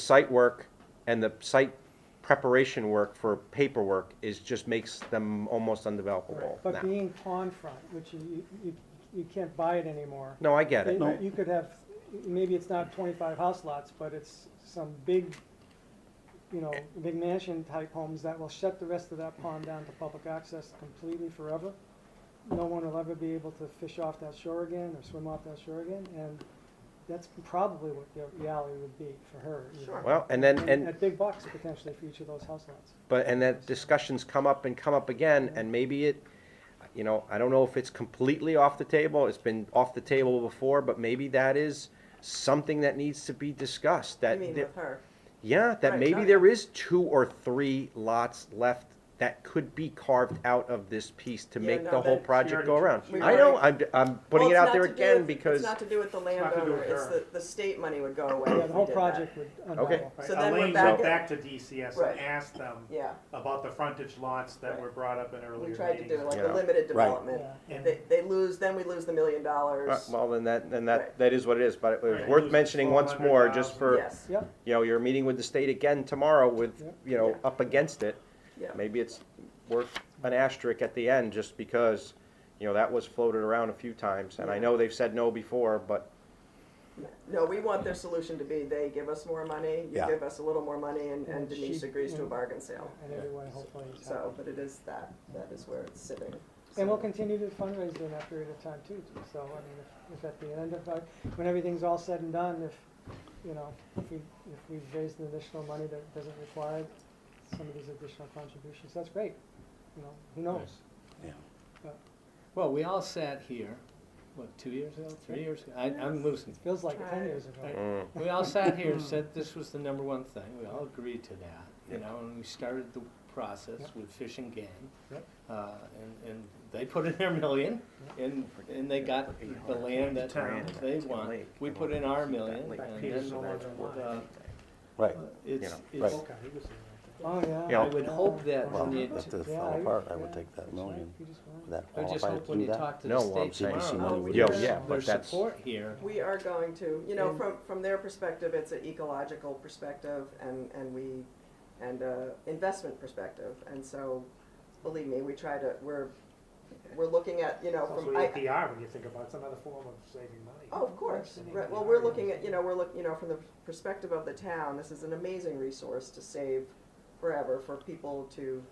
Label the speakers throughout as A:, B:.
A: site work and the site preparation work for paperwork is, just makes them almost undevelopable
B: But
A: now.
B: being pond front, which you, you- you, you can't buy it anymore.
A: No, I get it.
B: You- You could have, maybe it's not twenty-five house lots, but it's some big, you know, big mansion type homes that will shut the rest of that pond down to public access completely forever. No one will ever be able to fish off that shore again or swim off that shore again, and that's probably what the reality would be for her. you know.
C: Sure.
A: Well, and then, and.
B: At big bucks potentially for each of those house lots.
A: But, and that discussions come up and come up again, and maybe it, you know, I don't know if it's completely off the table, it's been off the table before, but maybe that is something that needs to be discussed,
C: I
A: that,
C: mean,
A: there-
C: with her.
A: yeah, that
C: Right,
A: maybe
C: no,
A: there is two or three lots left that could be carved out of this piece to
C: Yeah,
A: make
C: no,
A: the whole
C: that-
A: project go around.
C: We
A: I know, I'm,
C: already-
A: I'm putting it
C: Well, it's
A: out
C: not
A: there
C: to do
A: again
C: with-
A: because,
C: It's not to do with the
D: not to do
C: landowner,
D: with
C: it's
D: her.
C: the, the state money would go away
B: Yeah, the
C: if we
B: whole
C: did
B: project
C: that.
B: would
A: Okay.
B: unravel.
D: Right,
C: So then we're
D: Elaine
C: back
D: went back
C: at-
D: to DCS
C: Right.
D: and asked them
C: Yeah,
D: about the frontage lots that were brought up in earlier
C: we
D: meetings.
C: tried to do like
A: Yeah.
C: a limited development.
B: Yeah.
D: And-
C: They, they lose, then we lose the million
A: Uh,
C: dollars.
A: well, then that, then that,
C: Right.
A: that is what it is, but it was
D: Right.
A: worth mentioning once more, just for.
C: Yes,
B: Yep,
A: you know, you're meeting with the state again tomorrow with,
B: Yep.
A: you know,
C: Yeah.
A: up against it.
C: yeah.
A: Maybe it's worth an asterisk at the end just because, you know, that was floated around a few times. And I know they've said no before, but,
C: No, we want their solution to be, they give us more money, you
E: Yeah.
C: give us a little more money, and and
B: And she-
C: Denise agrees to a
B: and-
C: bargain sale.
B: and everyone hopefully is happy.
C: So, but it is that, that is where it's sitting.
B: And we'll
C: So-
B: continue to fundraise during that period of time too, so, I mean, if- if at the end of, uh, when everything's all said and done, if, you know, if we, if we've raised an additional money that doesn't require some of these additional contributions, that's great, you know, who knows?
E: Yeah.
F: Well, we all sat here, what, two years ago, three years ago? I, I'm losing.
B: Feels like ten years
F: Right.
B: ago.
A: mm,
F: We all sat here and said this was the number one thing. We all agreed to that, you know, and we started the process
B: Yep.
F: with Fish and Game.
B: Yep.
F: Uh, and, and they put in their million and, and they got the land that
D: Town.
F: they want. We put in our million
D: That
F: and
D: Peter's no
F: then,
D: longer alive.
F: uh,
E: Right.
F: it's,
E: You know,
F: it's,
E: right.
B: Oh, yeah.
A: Yeah.
F: I would hope that
E: Well,
F: when you,
E: if this
B: Yeah,
E: fell
B: I-
E: apart, I
B: yeah,
E: would take that
B: that's
E: million.
B: right, you just want-
E: Would that
F: I just
E: qualify
F: hope
E: to
F: when
E: do
F: you
E: that?
F: talk to
A: No,
F: the
A: well, I'm
F: state
A: saying
E: she
F: tomorrow,
E: wanted
F: there's,
C: to- Yeah,
A: yeah, but
F: there's
A: that's-
F: support here.
C: We are going to, you know,
F: And-
C: from, from their perspective, it's an ecological perspective and, and we, and a investment perspective. And so, believe me, we try to, we're, we're looking at, you know,
D: It's also
C: from, I,
D: APR, when you think about, it. it's another form of saving money.
C: oh, of course. Right, well, we're looking at, you know, we're look, you know, from the perspective of the town, this is an amazing resource to save forever for people to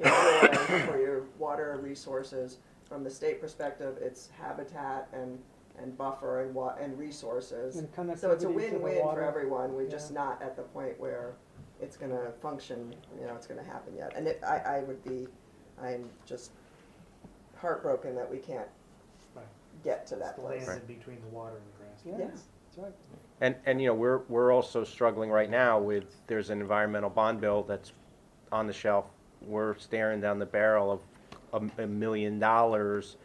C: enjoy for your water resources. From the state perspective, it's habitat and, and buffer and wa, and resources.
B: And connectivity
C: So it's
B: to
C: a
B: the
C: win-win for
B: water.
C: everyone, we're just
B: Yeah.
C: not at the point where it's gonna function, you know, it's gonna happen yet. And it, I, I would be, I'm just heartbroken that we can't
D: Right.
C: get to
D: It's
C: that
D: the
C: place.
D: land in between the water and the grass.
B: Yeah,
C: Yeah.
B: that's right.
A: and, and, you know, we're, we're also struggling right now with, there's an environmental bond bill that's on the shelf. We're staring down the barrel of a, a million dollars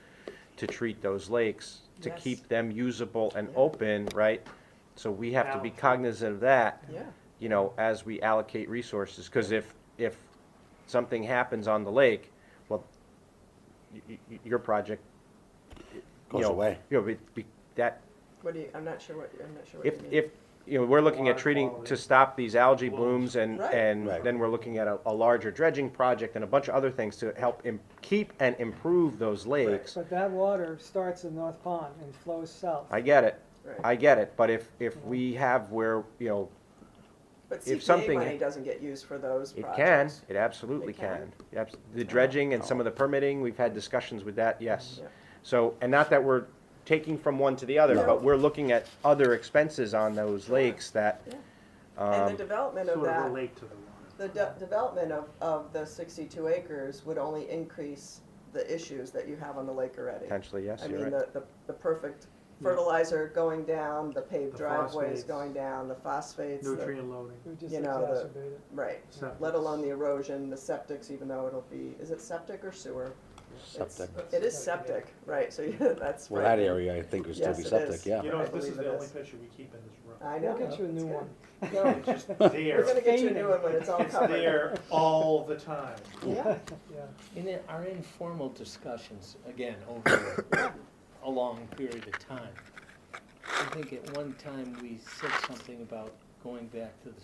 A: to treat those lakes, to
C: Yes.
A: keep them usable and
C: Yeah.
A: open, right? So we have to be
D: Allocate.
A: cognizant of that.
C: Yeah,
A: you know, as we allocate resources, because if, if something happens on the lake, well, y- y- y- your project, you
E: Goes
A: know.
E: away.
A: You know, it be- that,
C: what do you, I'm not sure what, I'm not sure what
A: if,
C: you mean.
A: if, you know, we're looking at
D: Water
A: treating,
D: quality.
A: to stop these algae
D: Blooms.
A: blooms and,
C: Right.
A: and
E: Right.
A: then we're looking at a, a larger dredging project and a bunch of other things to help im- keep and improve those lakes.
B: But that water starts in North Pond and flows south.
A: I get it,
C: Right.
A: I get it, but if, if we have where, you know,
C: But
A: if
C: CPA
A: something-
C: money doesn't get used for those
A: It can,
C: projects.
A: it absolutely
C: It can?
A: can. Abs- The dredging and some of the permitting, we've had discussions with that, yes. So, and not that we're taking from one to the other,
C: No.
A: but we're looking at other expenses on those lakes that,
C: Yeah. And the
A: um,
C: development of
D: Sort of
C: that,
D: relate to the water.
C: the de- development of, of the sixty-two acres would only increase the issues that you have on the lake already.
A: potentially, yes,
C: I
A: you're
C: mean,
A: right.
C: the, the, the perfect fertilizer going down, the paved
D: The
C: driveways
D: phosphates.
C: going down, the phosphates, the-
D: Nutrient loading.
B: We just
C: you know, the-
B: exacerbate it.
C: right.
D: septic.
C: Let alone the erosion, the septics, even though it'll be, is it septic or sewer? It's-
E: Septic.
C: It is septic, right, so yeah, that's right.
E: Well, that area, I think, would still
C: Yes,
E: be
C: it is.
E: septic, yeah.
D: You know,
C: I
D: this is
C: believe it
D: the only
C: is.
D: picture we keep in this room.
C: I know.
B: We'll get you a
C: it's
B: new
C: good.
B: one.
C: No,
D: It's just
C: We're gonna
D: there,
C: get you a new one when it's all
D: it's
C: covered.
D: there all the time.
C: Yeah,
B: Yeah.
F: In the- our informal discussions, again, over a long period of time, I think at one time we said something about going back to the